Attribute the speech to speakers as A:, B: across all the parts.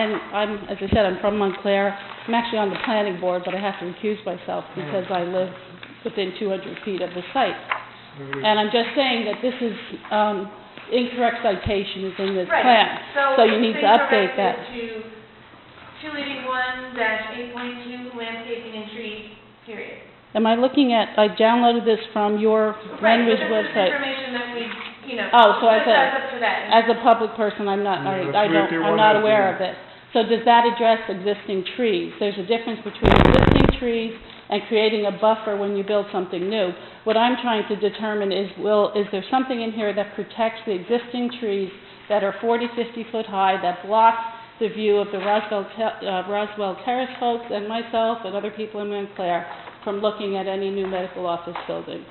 A: And I'm, as I said, I'm from Montclair. I'm actually on the planning board, but I have to recuse myself because I live within 200 feet of the site. And I'm just saying that this is, um, incorrect citation is in this plan.
B: Right,
A: So you need to update that.
B: So it's been corrected to 281 eight point two landscaping and trees, period.
A: Am I looking at, I downloaded this from your Renwick
B: Right, but this is
A: website.
B: information that we, you know.
A: Oh, so I
B: just
A: said-
B: as up to that.
A: As a public person, I'm not, I
C: Yeah,
A: I
C: that's
A: don't,
C: fifty
A: I'm
C: one
A: not
C: out
A: aware
C: there.
A: of it. So does that address existing trees? There's a difference between existing trees and creating a buffer when you build something new. What I'm trying to determine is, will, is there something in here that protects the existing trees that are 40, 50 foot high, that blocks the view of the Roswell, Te- uh, Roswell Terrace folks and myself and other people in Montclair from looking at any new medical office building?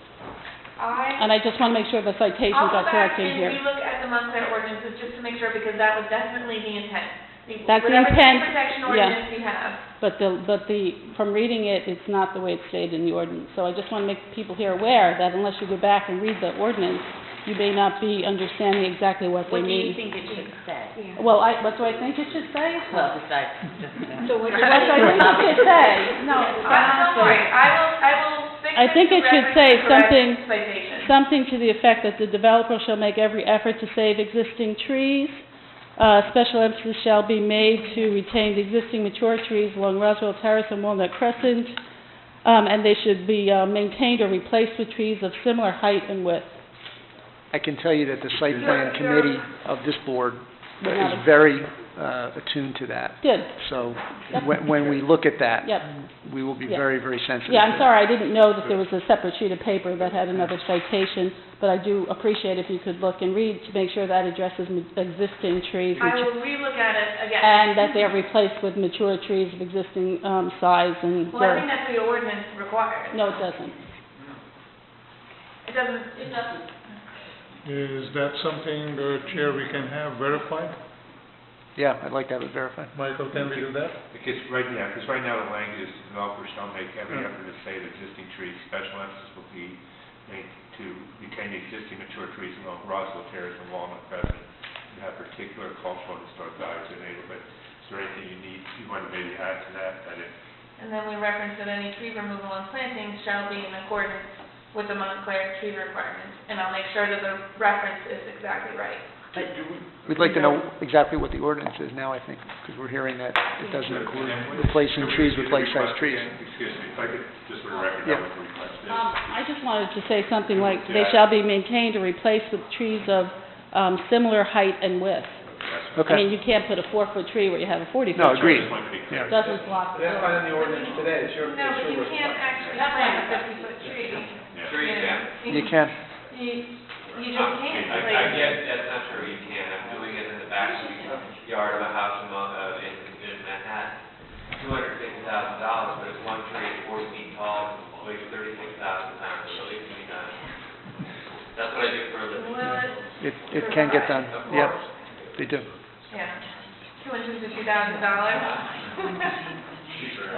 B: I,
A: And I just want to make sure the citations
B: I'll
A: are
B: go
A: correct
B: back
A: in
B: and
A: here.
B: relook at the Montclair ordinances just to make sure, because that was definitely the intent. The-
A: That's the
B: Whatever tree
A: intent,
B: protection
A: yeah.
B: ordinance you have.
A: But the, but the, from reading it, it's not the way it's stated in the ordinance. So I just want to make people here aware that unless you go back and read the ordinance, you may not be understanding exactly what they
D: What do you
A: mean.
D: think it should say?
A: Well, I, what do I think it should say?
D: Well, besides just that.
A: So what do I think it should say? No,
D: Uh,
B: I'm sorry, I will, I will fix
A: I
B: it
A: think
B: to
A: it should
B: reference
A: say
B: the correct
A: something-
B: citation.
A: Something to the effect that the developer shall make every effort to save existing trees. Uh, special emphasis shall be made to retain the existing mature trees along Roswell Terrace and Walnut Crescent, um, and they should be, uh, maintained or replaced with trees of similar height and width.
E: I can tell you that the site plan committee of this board
A: We're
E: is
A: not-
E: very uh, attuned to that.
A: Good,
E: So
A: Yep.
E: when, when we look at that,
A: yep.
E: we will be
A: Yeah.
E: very, very sensitive.
A: Yeah, I'm
E: to that.
A: sorry, I didn't know that there was a separate sheet of paper that had another citation, but I do appreciate if you could look and read to make sure that addresses ma- existing trees.
B: I
A: which-
B: will relook at it again.
A: And that they are replaced with mature trees of existing, um, size and
B: Well, I
A: girth.
B: think that's what the ordinance requires.
A: No, it doesn't.
B: It doesn't, it doesn't.
C: Is that something, uh, Chair, we can have verified?
E: Yeah, I'd like to have it verified.
C: Michael, can we do that?
F: Because right, yeah, because right now the language is developers shall make every effort to save existing trees. Special emphasis will be made to retain the existing mature trees along Roswell Terrace and Walnut Crescent and have particular cultural and historic values in the neighborhood. Is there anything you need, you want to maybe add to that, that it
B: And then we reference that any tree removal and planting shall be in accordance with the Montclair tree requirements. And I'll make sure that the reference is exactly right.
E: We'd like to know exactly what the ordinance is now, I think, because we're hearing that it doesn't include replacing trees with life-size trees.
F: Excuse me, if I could, just for the record, that
E: Yeah.
F: was the request. is.
A: Um, I just wanted to say something like, they shall be maintained or replaced with trees of, um, similar height and width. I mean,
E: Okay.
A: you can't put a four-foot tree where you have a forty-foot
E: No,
A: tree.
E: agreed.
F: Just wanted to be clear.
E: Yeah.
A: Doesn't block the
G: That's not in the ordinance today, it's your,
B: No, but
G: it's
B: you
G: your request.
B: can't actually plant a fifty-foot tree.
F: Yeah.
G: Sure you
B: know.
G: can.
E: You can.
B: You, you just can't,
G: I, I
B: like,
G: guess that's not true, you can, I'm doing it in the backyard of a house in, Mon- uh, in, in Manhattan. Two hundred fifty thousand dollars, but it's one tree, it's four feet tall, weighs thirty-six thousand pounds, so at least we got it. That's what I do for a living.
B: well,
E: It,
B: it,
E: it can get done.
G: Of
E: Yep,
G: course.
E: they do.
B: yeah, two hundred and fifty thousand dollars.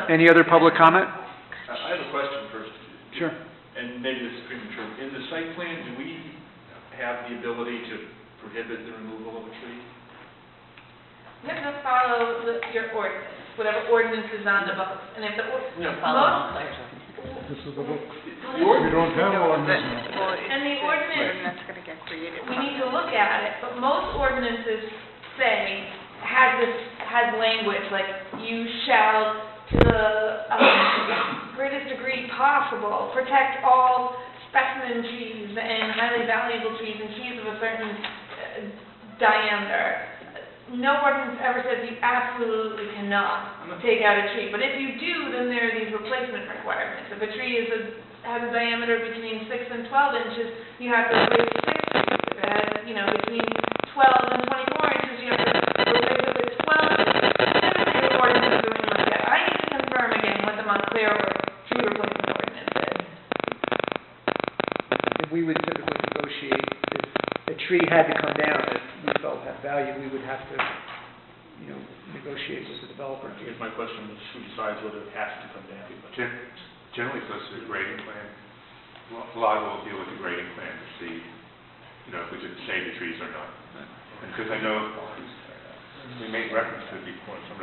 E: Any other public comment?
H: I I have a question first,
E: Sure.
H: and maybe this is premature. In the site plan, do we have the ability to prohibit the removal of a tree?
B: You have to follow the, your ordinance, whatever ordinance is on the books. And if the, or-
D: Follow Montclair's ordinance.
C: This is the book. We don't have one, this one.
B: and the ordinance
I: that's gonna get created.
B: we need to look at it, but most ordinances say, has this, has language, like, you shall, to the um, greatest degree possible, protect all specimen trees and highly valuable trees and trees of a certain uh, diameter. No ordinance ever says you absolutely cannot take out a tree, but if you do, then there are these replacement requirements. If a tree is a, has a diameter between six and twelve inches, you have to replace six if it has, you know, between twelve and twenty-four inches, you have to replace it with twelve. None of your ordinance is doing like that. I need to confirm again what the Montclair or tree replacement ordinance is.
E: And we would typically negotiate, if a tree had to come down that we felt had value, we would have to, you know, negotiate with the
H: I
E: developer.
H: guess my question is, who decides whether it has to come down?
F: Gen- Generally, goes to the grading plan. Lo- Lot will deal with the grading plan to see, you know, if we should save the trees or not. Because I know we made reference to it before, some of the